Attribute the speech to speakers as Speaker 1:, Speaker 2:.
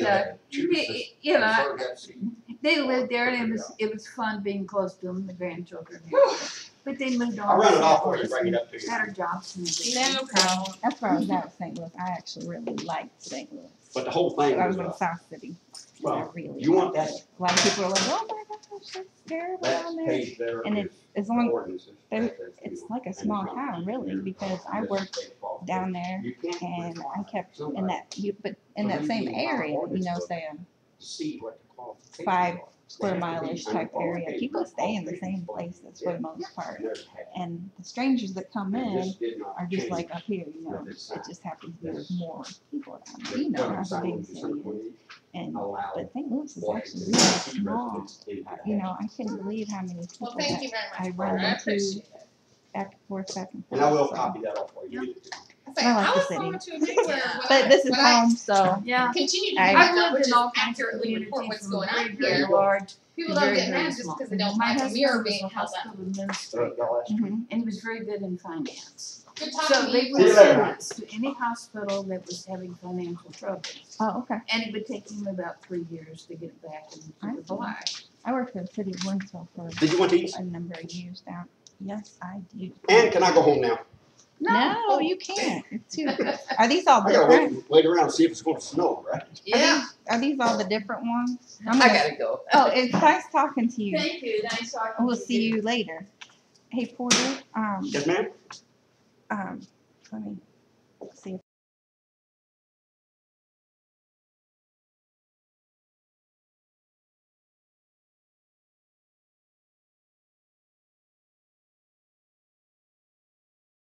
Speaker 1: uh,
Speaker 2: Judas
Speaker 1: y- you
Speaker 2: is
Speaker 1: know,
Speaker 2: so got seen.
Speaker 1: they lived there and it was, it was fun being close to them, the grandchildren. But they moved on.
Speaker 2: I'll run it off for you, bring it up to you.
Speaker 1: Better jobs and everything.
Speaker 3: No problem.
Speaker 4: That's where I was
Speaker 2: Mm-hmm.
Speaker 4: at St. Louis. I actually really liked St. Louis.
Speaker 2: But the whole thing
Speaker 4: I was
Speaker 2: was,
Speaker 4: in
Speaker 2: uh,
Speaker 4: South City. and I
Speaker 2: well,
Speaker 4: really
Speaker 2: you want
Speaker 4: liked
Speaker 2: that-
Speaker 4: it. A lot of people are like, oh my gosh, that's terrible down
Speaker 2: that
Speaker 4: there.
Speaker 2: page there
Speaker 4: And
Speaker 2: is
Speaker 4: it- As
Speaker 2: the
Speaker 4: long,
Speaker 2: ordinances.
Speaker 4: there-
Speaker 2: That's it.
Speaker 4: it's like a small town really, because I
Speaker 2: That's
Speaker 4: worked
Speaker 2: the baseball
Speaker 4: down
Speaker 2: field.
Speaker 4: there
Speaker 2: You can't
Speaker 4: and I
Speaker 2: require
Speaker 4: kept in
Speaker 2: somebody
Speaker 4: that, you, but in
Speaker 2: So
Speaker 4: that
Speaker 2: they
Speaker 4: same
Speaker 2: need our
Speaker 4: area, you
Speaker 2: ordinance
Speaker 4: know,
Speaker 2: book.
Speaker 4: say a
Speaker 2: to See what the qualifications
Speaker 4: five
Speaker 2: are. They have to
Speaker 4: square
Speaker 2: be
Speaker 4: mileage type
Speaker 2: unqualified,
Speaker 4: area, people stay in the
Speaker 2: unqualified
Speaker 4: same
Speaker 2: people.
Speaker 4: places for the most part.
Speaker 2: And there's half.
Speaker 4: And the strangers that come
Speaker 2: And
Speaker 4: in
Speaker 2: this did not
Speaker 4: are just
Speaker 2: change.
Speaker 4: like up here, you know,
Speaker 2: with this
Speaker 4: it
Speaker 2: sign.
Speaker 4: just happens there's
Speaker 2: Yes.
Speaker 4: more people down there,
Speaker 2: The
Speaker 4: you know,
Speaker 2: current
Speaker 4: that's a
Speaker 2: sign
Speaker 4: big
Speaker 2: was a
Speaker 4: city.
Speaker 2: certain way,
Speaker 4: And,
Speaker 2: allow
Speaker 4: but St. Louis is
Speaker 2: black
Speaker 4: actually
Speaker 2: and
Speaker 4: really
Speaker 2: white
Speaker 4: small. uh,
Speaker 2: residents in that
Speaker 4: You
Speaker 2: area.
Speaker 4: know, I couldn't believe how many people
Speaker 3: Well, thank
Speaker 4: that
Speaker 3: you very much.
Speaker 4: I
Speaker 3: Barbara.
Speaker 4: run
Speaker 3: I
Speaker 4: into
Speaker 3: appreciate it.
Speaker 4: back and forth, back and forth.
Speaker 2: And I will
Speaker 4: so.
Speaker 2: copy that off for
Speaker 1: Yeah.
Speaker 2: you.
Speaker 3: I say,
Speaker 4: I like
Speaker 3: I
Speaker 4: the
Speaker 3: was
Speaker 4: city.
Speaker 3: going to a big word, but I-
Speaker 4: But this is
Speaker 3: but I
Speaker 4: home, so
Speaker 1: Yeah.
Speaker 3: Continue to
Speaker 4: I-
Speaker 3: do
Speaker 1: I've
Speaker 3: that,
Speaker 1: lived
Speaker 3: which
Speaker 1: in
Speaker 3: is
Speaker 1: all kinds of
Speaker 3: accurately report
Speaker 1: communities
Speaker 3: what's
Speaker 1: from
Speaker 3: going
Speaker 1: very,
Speaker 3: on
Speaker 1: very
Speaker 3: here.
Speaker 1: large.
Speaker 3: People
Speaker 1: to
Speaker 3: don't
Speaker 1: very,
Speaker 3: get
Speaker 1: very
Speaker 3: mad just
Speaker 1: small.
Speaker 3: because they
Speaker 1: My
Speaker 3: don't like a
Speaker 1: husband
Speaker 3: mirror
Speaker 1: was
Speaker 3: being
Speaker 1: a
Speaker 3: held up.
Speaker 1: hospital administrator,
Speaker 2: So, y'all ask me.
Speaker 4: mhm.
Speaker 1: And he was very good in finance.
Speaker 3: Good
Speaker 1: So
Speaker 3: talking to
Speaker 1: they
Speaker 3: you.
Speaker 1: would
Speaker 2: See you
Speaker 1: send
Speaker 2: later.
Speaker 1: us to any hospital that was having financial trouble.
Speaker 4: Oh, okay.
Speaker 1: And it would take him about three years to get it back and keep it
Speaker 4: I see.
Speaker 1: alive.
Speaker 4: I worked for the city of Winslow for
Speaker 2: Did you want these?
Speaker 4: a number of years now. Yes, I do.
Speaker 2: And can I go home now?
Speaker 4: No, you can't. It's too. Are these all
Speaker 2: I gotta
Speaker 4: different?
Speaker 2: wait, wait around and see if it's gonna snow, right?
Speaker 4: Yeah. Are these all the different ones? I'm gonna-
Speaker 3: go.
Speaker 4: Oh, it's nice talking to you.
Speaker 3: Thank you, nice talking to you.
Speaker 4: We'll see you later. Hey Porter, um,
Speaker 2: Yes, ma'am?
Speaker 4: um, let me see if